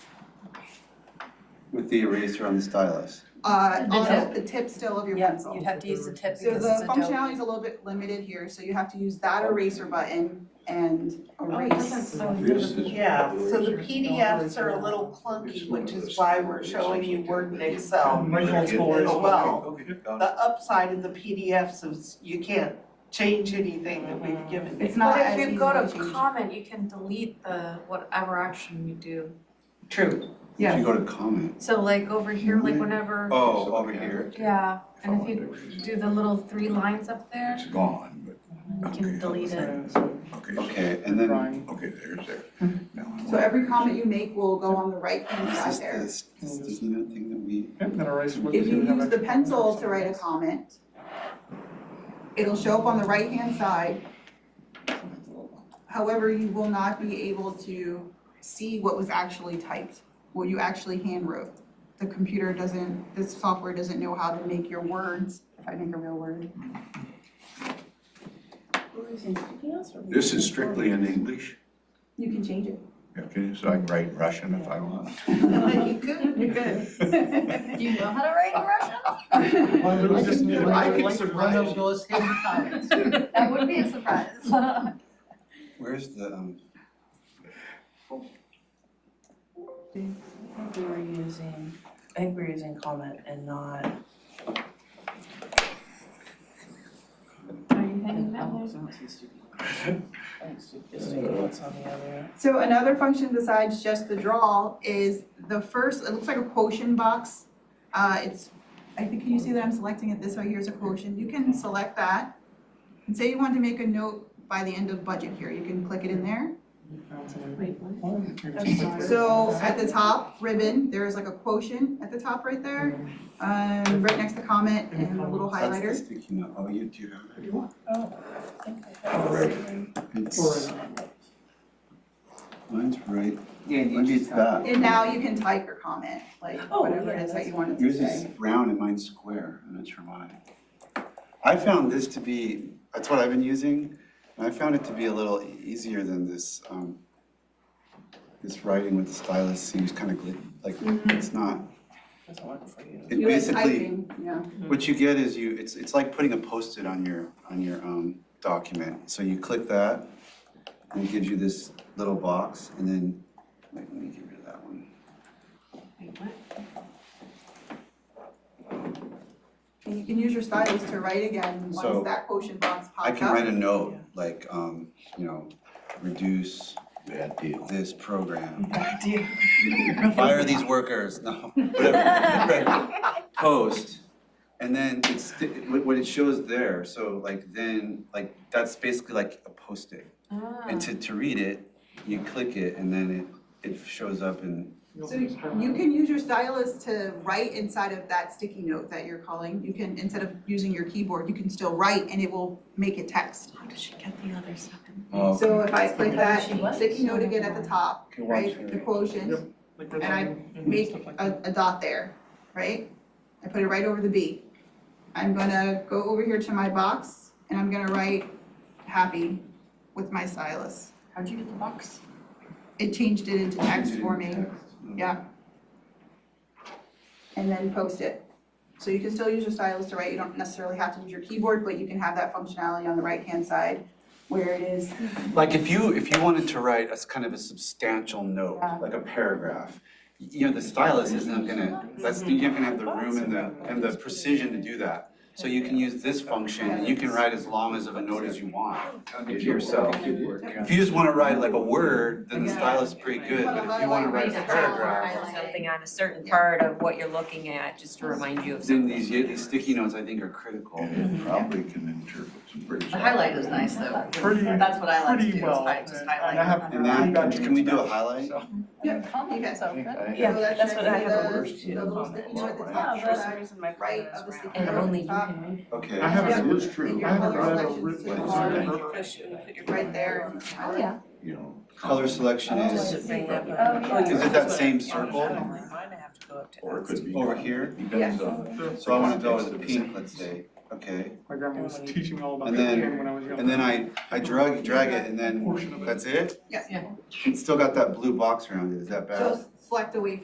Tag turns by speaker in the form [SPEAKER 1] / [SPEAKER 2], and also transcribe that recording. [SPEAKER 1] with the eraser on the stylus.
[SPEAKER 2] Uh,
[SPEAKER 3] The
[SPEAKER 2] on
[SPEAKER 3] tip.
[SPEAKER 2] the tip still of your
[SPEAKER 3] Yeah,
[SPEAKER 2] pencil.
[SPEAKER 3] You'd have to use the tip
[SPEAKER 2] So
[SPEAKER 3] because
[SPEAKER 2] the
[SPEAKER 3] it's a
[SPEAKER 2] functionality
[SPEAKER 3] dope.
[SPEAKER 2] is a little bit limited here, so you have to use that eraser button and
[SPEAKER 3] Oh,
[SPEAKER 2] erase.
[SPEAKER 4] Yeah, so the PDFs are a little clunky, which is why we're showing you Word and Excel as well. The upside of the PDFs is you can't change anything that we've given you.
[SPEAKER 2] It's not
[SPEAKER 5] But
[SPEAKER 2] as
[SPEAKER 5] if
[SPEAKER 2] easy
[SPEAKER 5] you go
[SPEAKER 2] to
[SPEAKER 5] to
[SPEAKER 2] change.
[SPEAKER 5] comment, you can delete the whatever action you do.
[SPEAKER 4] True.
[SPEAKER 1] If you
[SPEAKER 2] Yes,
[SPEAKER 1] go to comment.
[SPEAKER 5] So like over here, like whenever,
[SPEAKER 1] Mm-hmm. Oh, over here.
[SPEAKER 5] yeah, and if you do the little three lines up there,
[SPEAKER 6] It's gone,
[SPEAKER 5] you
[SPEAKER 6] but.
[SPEAKER 5] can delete it.
[SPEAKER 6] but, okay, so-
[SPEAKER 1] Okay, and then
[SPEAKER 6] okay, there's there. Now I
[SPEAKER 2] so
[SPEAKER 6] want-
[SPEAKER 2] every comment you make will go on the right hand
[SPEAKER 1] is
[SPEAKER 2] side
[SPEAKER 1] this
[SPEAKER 2] there.
[SPEAKER 1] the sticky note thing that we?
[SPEAKER 2] If you use the pencil to write a comment, it'll show up on the right hand side. However, you will not be able to see what was actually typed, what you actually hand wrote. The computer doesn't, this software doesn't know how to make your words, if I make a real word.
[SPEAKER 6] This is strictly in English,
[SPEAKER 2] You can change it.
[SPEAKER 6] okay, so I can write in Russian if I want.
[SPEAKER 4] You could, you could.
[SPEAKER 5] Do you know how to write in Russian?
[SPEAKER 7] I can do it.
[SPEAKER 6] I
[SPEAKER 7] would
[SPEAKER 6] can
[SPEAKER 7] like to
[SPEAKER 6] surprise
[SPEAKER 7] run
[SPEAKER 6] you.
[SPEAKER 7] those hidden comments.
[SPEAKER 5] That would be a surprise.
[SPEAKER 1] Where's the, um,
[SPEAKER 8] think we were using, I think we were using comment and not.
[SPEAKER 5] Are you heading that way?
[SPEAKER 8] Just maybe oh, what's on the other.
[SPEAKER 2] So another function besides just the draw is the first, it looks like a quotient box. Uh, it's, I think, can you see that I'm selecting it this way, here's a quotient, you can select that. And say you want to make a note by the end of budget here, you can click it in there. So at the top ribbon, there is like a quotient at the top right there, um, right next to comment and a little
[SPEAKER 1] that's the
[SPEAKER 2] Oh, highlighter.
[SPEAKER 1] sticky note. Oh, you do have it.
[SPEAKER 8] Oh, I think I have it somewhere.
[SPEAKER 1] It's, mine's right.
[SPEAKER 7] Yeah,
[SPEAKER 1] Maybe
[SPEAKER 7] you
[SPEAKER 1] it's
[SPEAKER 7] just have-
[SPEAKER 1] that.
[SPEAKER 2] And now you can type your comment, like
[SPEAKER 8] Oh,
[SPEAKER 2] whatever it
[SPEAKER 8] yeah,
[SPEAKER 2] is that
[SPEAKER 8] that's-
[SPEAKER 2] you wanted to
[SPEAKER 1] Yours
[SPEAKER 2] say.
[SPEAKER 1] is round and mine's square. I'm not sure why. I found this to be, that's what I've been using, and I found it to be a little e- easier than this, um, this writing with the stylus seems kind of glitchy, like,
[SPEAKER 7] Mm-hmm.
[SPEAKER 1] it's not,
[SPEAKER 8] Doesn't work for you.
[SPEAKER 1] it
[SPEAKER 2] You like
[SPEAKER 1] basically,
[SPEAKER 2] typing, you know.
[SPEAKER 1] what you get is you, it's, it's like putting a post-it on your, on your, um, document. So you click that, and it gives you this little box, and then, wait, let me get rid of that one.
[SPEAKER 2] And you can use your stylus to write again
[SPEAKER 1] So,
[SPEAKER 2] once that quotient box pops up.
[SPEAKER 1] I can write a note, like, um, you know, reduce
[SPEAKER 6] Bad deal.
[SPEAKER 1] this program.
[SPEAKER 8] Deal.
[SPEAKER 1] Fire these workers, no, whatever. Post, and then it's, what what it shows there, so like then, like, that's basically like a post-it. And
[SPEAKER 5] Ah.
[SPEAKER 1] to, to read it, you click it and then it, it shows up and,
[SPEAKER 2] So you can use your stylus to write inside of that sticky note that you're calling. You can, instead of using your keyboard, you can still write and it will make it text.
[SPEAKER 5] How did she get the other seven?
[SPEAKER 1] oh,
[SPEAKER 2] So if I click that
[SPEAKER 5] She was.
[SPEAKER 2] sticky note again at the top,
[SPEAKER 1] Okay, one,
[SPEAKER 2] right,
[SPEAKER 1] two.
[SPEAKER 2] the quotient, and I make a, a dot there, right? I put it right over the B. I'm gonna go over here to my box and I'm gonna write happy with my stylus.
[SPEAKER 5] How'd you get the box?
[SPEAKER 2] It changed it into text for me. Yeah. And then post it. So you can still use your stylus to write, you don't necessarily have to use your keyboard, but you can have that functionality on the right-hand side where it is,
[SPEAKER 1] Like if you, if you wanted to write a s- kind of a substantial note,
[SPEAKER 2] Yeah.
[SPEAKER 1] like a paragraph, y- you know, the stylus isn't gonna, that's, you're not gonna have the room and the, and the precision to do that. So you can use this function and you can write as long as of a note as you want to yourself. If you just wanna write like a word, then the stylus is pretty good, but if you wanna write a paragraph,
[SPEAKER 9] something on a certain part of what you're looking at, just to remind you of
[SPEAKER 1] then
[SPEAKER 9] something.
[SPEAKER 1] these, these sticky notes, I think, are critical.
[SPEAKER 6] And it probably can interpret some pretty.
[SPEAKER 3] The highlight is nice though.
[SPEAKER 7] Pretty-
[SPEAKER 3] That's what I like to
[SPEAKER 7] pretty
[SPEAKER 3] do, is
[SPEAKER 7] well,
[SPEAKER 3] hi- just
[SPEAKER 7] and- and I
[SPEAKER 3] highlight.
[SPEAKER 7] have-
[SPEAKER 1] And then, can we do a highlight?
[SPEAKER 8] Comments,
[SPEAKER 6] I think I have-
[SPEAKER 8] Yeah,
[SPEAKER 2] So that's
[SPEAKER 8] that's what I
[SPEAKER 2] actually
[SPEAKER 8] have.
[SPEAKER 2] the-
[SPEAKER 8] over-
[SPEAKER 6] Worst
[SPEAKER 2] the little
[SPEAKER 8] comment.
[SPEAKER 2] sticky note at the
[SPEAKER 6] Yeah,
[SPEAKER 2] top,
[SPEAKER 8] Yeah, for some
[SPEAKER 2] right,
[SPEAKER 8] reason my
[SPEAKER 2] right
[SPEAKER 8] comment
[SPEAKER 2] of the
[SPEAKER 8] is
[SPEAKER 2] sticky
[SPEAKER 8] round.
[SPEAKER 9] And
[SPEAKER 2] note at
[SPEAKER 9] only
[SPEAKER 2] the
[SPEAKER 9] you
[SPEAKER 2] top.
[SPEAKER 9] can read.
[SPEAKER 1] Okay.
[SPEAKER 7] I haven't
[SPEAKER 2] Yeah.
[SPEAKER 6] It's
[SPEAKER 2] And
[SPEAKER 6] true.
[SPEAKER 2] your
[SPEAKER 7] I haven't
[SPEAKER 2] color
[SPEAKER 7] read a
[SPEAKER 2] selections
[SPEAKER 7] written
[SPEAKER 2] to
[SPEAKER 6] one.
[SPEAKER 2] are
[SPEAKER 8] You push it and put your-
[SPEAKER 2] right there. and
[SPEAKER 8] Oh,
[SPEAKER 2] highlight.
[SPEAKER 6] You know.
[SPEAKER 1] Color selection
[SPEAKER 8] Does
[SPEAKER 1] is
[SPEAKER 8] it bring up?
[SPEAKER 5] Oh,
[SPEAKER 1] Is it that same circle?
[SPEAKER 8] I don't like mine, I have to go up to.
[SPEAKER 6] Or it could be.
[SPEAKER 1] over here,
[SPEAKER 6] Depends on.
[SPEAKER 1] so I wanna go with the pink, let's say, okay.
[SPEAKER 7] My grandma was teaching me all about
[SPEAKER 1] And then-
[SPEAKER 7] painting when I was young.
[SPEAKER 1] And then I, I drag, drag it and then, that's it?
[SPEAKER 2] Yes.
[SPEAKER 1] It's still got that blue box around it, is that bad?
[SPEAKER 2] So select away